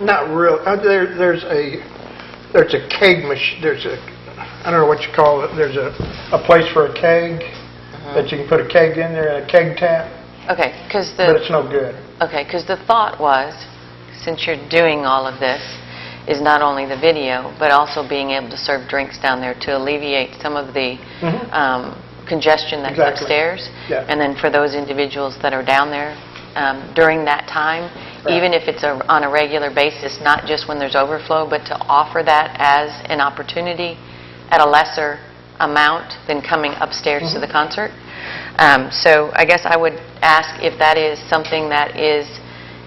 Not real, uh, there, there's a, there's a keg mach, there's a, I don't know what you call it, there's a, a place for a keg, that you can put a keg in there, and a keg tap, Okay, because but the, it's no good. okay, 'cause the thought was, since you're doing all of this, is not only the video, but also being able to serve drinks down there to alleviate some of the Mhm. um, congestion that's Exactly. upstairs. Yeah. And then for those individuals that are down there um, during that time, Right. even if it's a- on a regular basis, not just when there's overflow, but to offer that as an opportunity at a lesser amount than coming upstairs Mm-hmm. to the concert. Um, So I guess I would ask if that is something that is,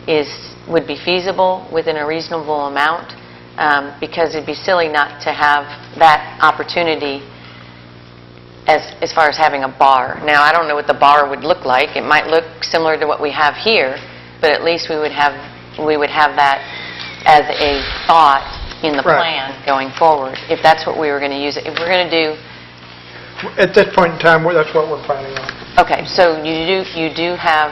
is, would be feasible within a reasonable amount, um, because it'd be silly not to have that opportunity as, as far as having a bar. Now, I don't know what the bar would look like. It might look similar to what we have here, but at least we would have, we would have that as a thought in the Right. plan going forward, if that's what we were going to use. it. If we're going to do, At this point in time, we're- that's what we're planning on. okay, so you do, you do have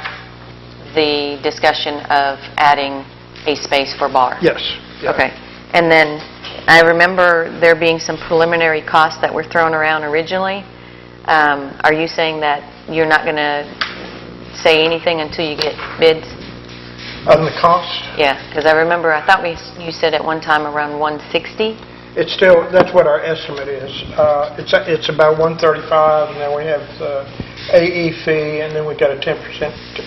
the discussion of adding a space for bar? Yes. yeah. Okay. And then, I remember there being some preliminary costs that were thrown around originally. Um, Are you saying that you're not going to say anything until you get bids? On the cost, Yeah, because I remember, I thought we, you said at one time around 160? it's still, that's what our estimate is. Uh, It's, a- it's about 135, and then we have the AE fee, and then we got a 10%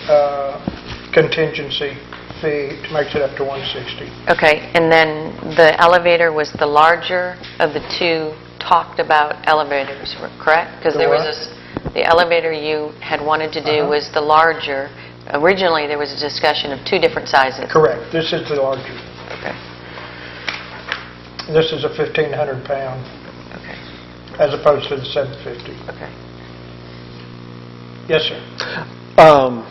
uh, contingency fee to make it up to 160. Okay, and then the elevator was the larger of the two talked-about elevators, correct? Because The there was what? this, the elevator you had wanted to do Uh-huh. was the larger. Originally, there was a discussion of two different sizes. Correct. This is the larger. Okay. This is a 1,500 pound Okay, as opposed to the 750. okay. Yes, sir. Um,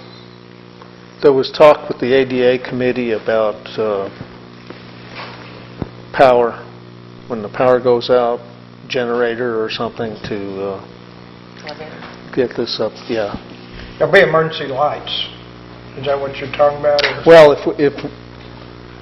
There was talk with the ADA committee about uh, power, when the power goes out, generator or something to uh, get this up, yeah. There'll be emergency lights. Is that what you're talking about? or- Well, if, if,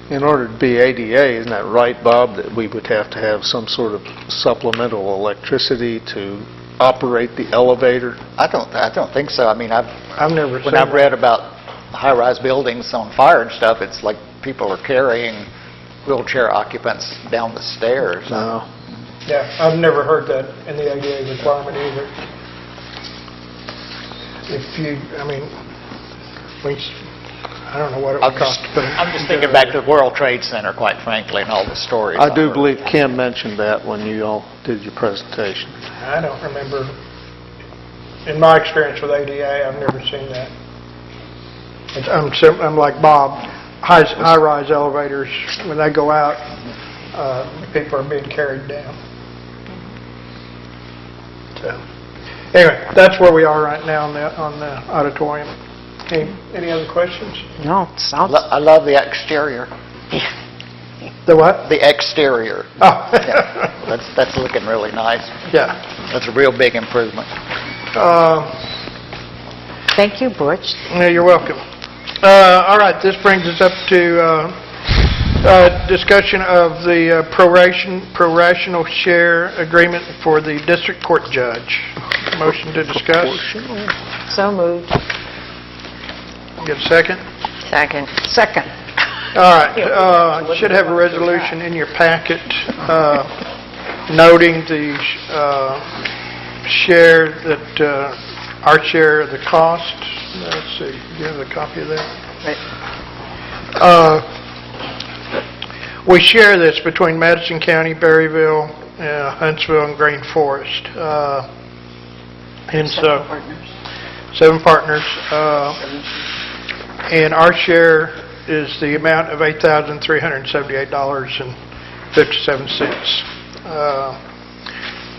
in order to be ADA, isn't that right, Bob, that we would have to have some sort of supplemental electricity to operate the elevator? I don't, I don't think so. I mean, I've, I've never seen. when I've that. read about high-rise buildings on fire and stuff, it's like people are carrying wheelchair occupants down the stairs. No. Yeah, I've never heard that in the ADA requirement either. If you, I mean, we, s- I don't know what it I'm would just, cost, but... I'm just thinking back to the World Trade Center, quite frankly, and all the stories. I do I've believe Kim mentioned that when you all did your presentation. I don't remember, in my experience with ADA, I've never seen that. It's- I'm sim- I'm like Bob, high- high-rise elevators, when they go out, uh, people are being carried down. So, anyway, that's where we are right now on the on the auditorium. Any any other questions? No, it I sounds, lo- I love the exterior, The what? the exterior. Oh, That's, that's looking really nice. yeah. That's a real big improvement. Um, thank you, Butch. Yeah, you're welcome. Uh, All right, this brings us up to uh, uh, discussion of the uh, proration, prorational share agreement for the district court judge. Motion to discuss. So moved. Get a second? Second. Second. All right, uh, should have a resolution in your packet uh, noting the uh, share that, uh, our share of the cost. Let's see, do you have a copy of that? Uh, We share this between Madison County, Berryville, uh, Huntsville, and Green Forest. Uh, And so, seven partners. uh, And our share is the amount of $8,378.57, uh,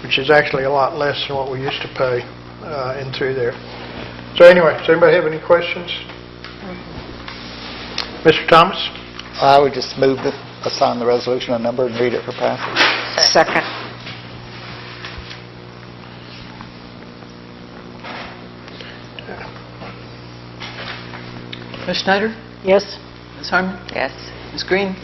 which is actually a lot less than what we used to pay uh, in through there. So anyway, does anybody have any questions? Mr. Thomas? I would just move to assign the resolution a number and read it for passage. Second. Ms. Schneider? Yes? Ms. Harmon? Yes. Ms. Green?